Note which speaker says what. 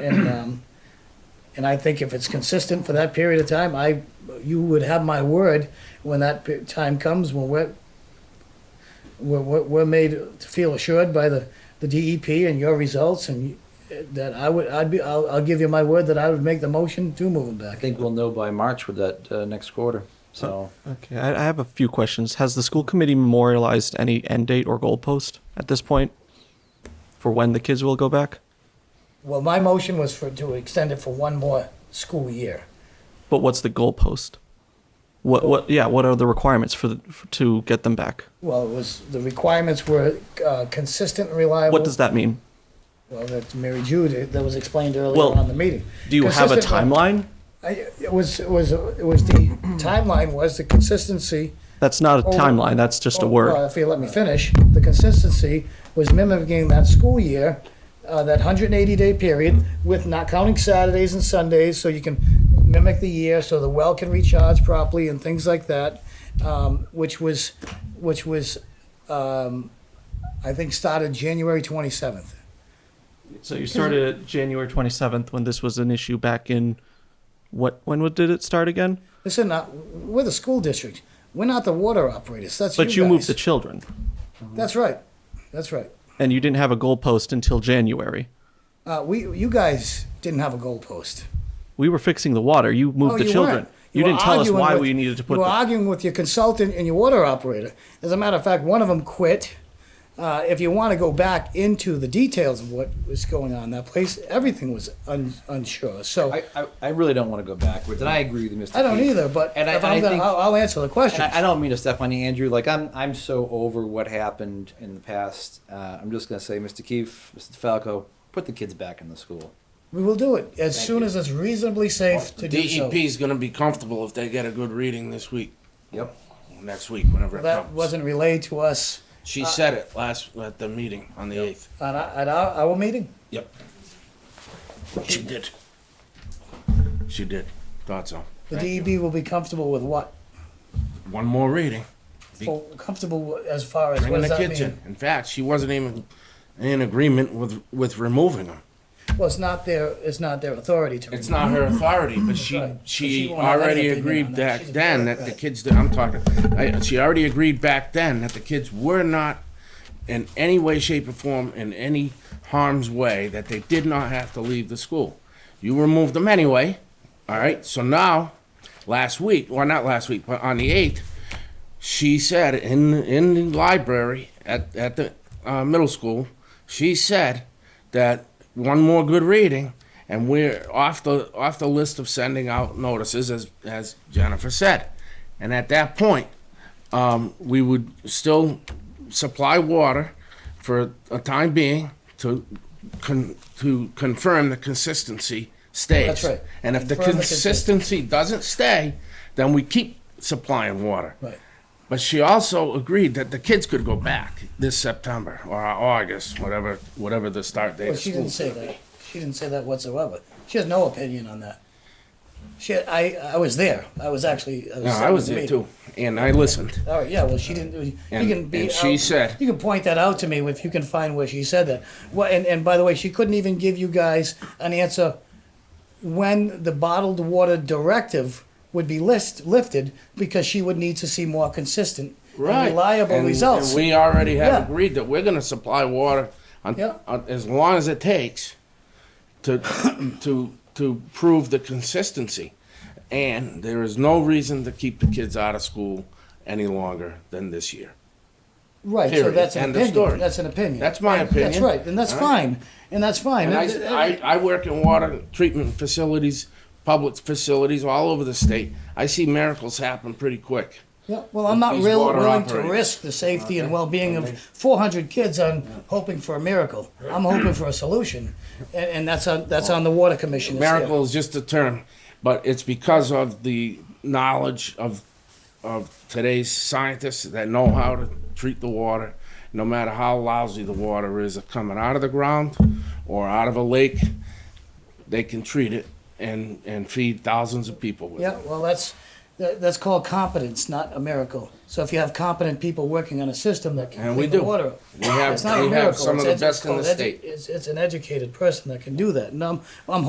Speaker 1: And, um, and I think if it's consistent for that period of time, I, you would have my word when that pe- time comes, when we're, we're, we're we're made to feel assured by the, the DEP and your results and you- that I would, I'd be, I'll, I'll give you my word that I would make the motion to move them
Speaker 2: I
Speaker 1: back.
Speaker 2: think we'll know by March with that uh, next quarter. So
Speaker 3: Okay, I, I have a few questions. Has the school committee memorialized any end date or goalpost at this point for when the kids will go back?
Speaker 1: Well, my motion was for, to extend it for one more school year.
Speaker 3: But what's the goalpost? What what? Yeah, what are the requirements for, the, for to get them back?
Speaker 1: Well, it was, the requirements were uh, consistent and reliable.
Speaker 3: What does that mean?
Speaker 1: Well, that's Mary Jude, that was explained earlier
Speaker 3: Well,
Speaker 1: on in the meeting.
Speaker 3: Do you have a
Speaker 1: Consistent-
Speaker 3: timeline?
Speaker 1: I- It was, it was, it was the timeline was the consistency.
Speaker 3: That's not a
Speaker 1: Oh,
Speaker 3: timeline. That's just a
Speaker 1: Well,
Speaker 3: word.
Speaker 1: If you let me finish, the consistency was mimicking that school year, uh, that hundred and eighty day period with not counting Saturdays and Sundays, so you can mimic the year, so the well can recharge properly and things like that, um, which was, which was, um, I think started January twenty-seventh.
Speaker 3: So you started at January twenty seventh when this was an issue back in what? When would- did it start again?
Speaker 1: Listen, not, we're the school district. We're not the water operators. That's
Speaker 3: But you moved the
Speaker 1: guys.
Speaker 3: children,
Speaker 1: That's right. That's right.
Speaker 3: and you didn't have a goalpost until January.
Speaker 1: Uh, we, you guys didn't have a goalpost.
Speaker 3: We were fixing the water. You moved
Speaker 1: No,
Speaker 3: the
Speaker 1: Oh, you
Speaker 3: children.
Speaker 1: weren't.
Speaker 3: You,
Speaker 1: were
Speaker 3: didn't tell us
Speaker 1: arguing
Speaker 3: why
Speaker 1: with-
Speaker 3: we needed to put.
Speaker 1: You were
Speaker 3: The,
Speaker 1: arguing with your consultant and your water operator. As a matter of fact, one of them quit. Uh, if you want to go back into the details of what was going on in that place, everything was un, unsure. So
Speaker 2: I,
Speaker 1: I,
Speaker 2: I, I really don't want to go backwards, and I agree with you, Mr.
Speaker 1: don't
Speaker 2: Keith.
Speaker 1: either. But
Speaker 2: and I,
Speaker 1: if
Speaker 2: and
Speaker 1: I'm
Speaker 2: I
Speaker 1: gonna,
Speaker 2: think
Speaker 1: I'll, I'll answer the question.
Speaker 2: And I, I don't mean to step on you, Andrew. Like I'm, I'm so over what happened in the past. Uh, I'm just gonna say, Mr. Keefe, Mr. Falco, put the kids back in the school.
Speaker 1: we will do it as
Speaker 2: Thank
Speaker 1: soon
Speaker 2: you. E
Speaker 1: as it's reasonably safe to do so.
Speaker 4: DEP E is going to be comfortable if they get a good reading this week,
Speaker 2: Yep.
Speaker 4: next week, whenever it
Speaker 1: That
Speaker 4: comes.
Speaker 1: wasn't uh, relayed to us
Speaker 4: she said it last at the meeting on the eighth.
Speaker 1: at our, at our, our meeting.
Speaker 4: Yep. She did. She did. Thought so.
Speaker 1: The
Speaker 4: Thank you.
Speaker 1: DEB will be comfortable with what?
Speaker 4: One more reading. Be-
Speaker 1: For- Comfortable wi- as far as
Speaker 4: Bring
Speaker 1: what
Speaker 4: in
Speaker 1: does
Speaker 4: the
Speaker 1: that
Speaker 4: kitchen.
Speaker 1: mean?
Speaker 4: In fact, she wasn't even in agreement with with removing them.
Speaker 1: Well, it's not their, it's not their authority to.
Speaker 4: It's not her authority, but she,
Speaker 1: Right. She
Speaker 4: she
Speaker 1: won't have
Speaker 4: already
Speaker 1: anything on
Speaker 4: agreed
Speaker 1: that.
Speaker 4: back
Speaker 1: She's a
Speaker 4: then
Speaker 1: parent,
Speaker 4: that the
Speaker 1: right.
Speaker 4: kids, that I'm talking, I, she already agreed back then that the kids were not in any way, shape or form, in any harm's way, that they did not have to leave the school. You removed them anyway, all right? So now, last week, well, not last week, but on the eighth, she said in in the library at at the uh, middle school, she said that one more good reading and we're off the off the list of sending out notices as as Jennifer said, and at that point, um, we would still supply water for a time being to con- to confirm the consistency stays.
Speaker 1: That's right.
Speaker 4: And if the
Speaker 1: Confirm the
Speaker 4: consistency doesn't stay, then we keep supplying water.
Speaker 1: Right.
Speaker 4: But she also agreed that the kids could go back this September or August, whatever, whatever the start date.
Speaker 1: Well,
Speaker 4: of
Speaker 1: she
Speaker 4: school.
Speaker 1: didn't say that. She didn't say that whatsoever. She has no opinion on that. She, I, I was there. I was actually. I was,
Speaker 4: No,
Speaker 1: sitting
Speaker 4: I
Speaker 1: in
Speaker 4: was
Speaker 1: the
Speaker 4: there
Speaker 1: meeting.
Speaker 4: too, and I listened.
Speaker 1: All right, yeah, well, she didn't, you
Speaker 4: And-
Speaker 1: can be.
Speaker 4: and she
Speaker 1: out-
Speaker 4: said-
Speaker 1: You can point that out to me if you can find where she said that. Well, and, and by the way, she couldn't even give you guys an answer when the bottled water directive would be list, lifted, because she would need to see more consistent and reliable
Speaker 4: And-
Speaker 1: results.
Speaker 4: And we already
Speaker 1: Yeah.
Speaker 4: have agreed that we're gonna supply water on,
Speaker 1: Yeah.
Speaker 4: on- as long as it takes to, to, to prove the consistency. And there is no reason to keep the kids out of school any longer than this year.
Speaker 1: Right, so
Speaker 4: Period.
Speaker 1: that's an
Speaker 4: End of
Speaker 1: opinion,
Speaker 4: story.
Speaker 1: that's an opinion.
Speaker 4: That's my
Speaker 1: That's
Speaker 4: opinion.
Speaker 1: right, and that's
Speaker 4: All right.
Speaker 1: fine, and that's fine.
Speaker 4: And I,
Speaker 1: That-
Speaker 4: I, I work in water treatment facilities, public facilities all over the state. I see miracles happen pretty quick.
Speaker 1: Yeah, well, I'm not
Speaker 4: These
Speaker 1: real
Speaker 4: water
Speaker 1: willing to
Speaker 4: operators.
Speaker 1: risk the safety and well-being of 400 kids on hoping for a miracle. I'm hoping for a solution, and, and that's on, that's on the water commission.
Speaker 4: Miracle is just a term, but it's because of the knowledge of of today's scientists that know how to treat the water, no matter how lousy the water is coming out of the ground or out of a lake, they can treat it and and feed thousands of people with
Speaker 1: Yeah,
Speaker 4: it.
Speaker 1: well, that's, That, that's called competence, not a miracle. So if you have competent people working on a system that can
Speaker 4: And we
Speaker 1: clean the
Speaker 4: do.
Speaker 1: water, up,
Speaker 4: We have-
Speaker 1: it's not a
Speaker 4: we have
Speaker 1: miracle.
Speaker 4: some of
Speaker 1: It's
Speaker 4: the
Speaker 1: edu-
Speaker 4: best in
Speaker 1: called
Speaker 4: the
Speaker 1: edu-
Speaker 4: state.
Speaker 1: It's, it's an educated person that can do that, and I'm, I'm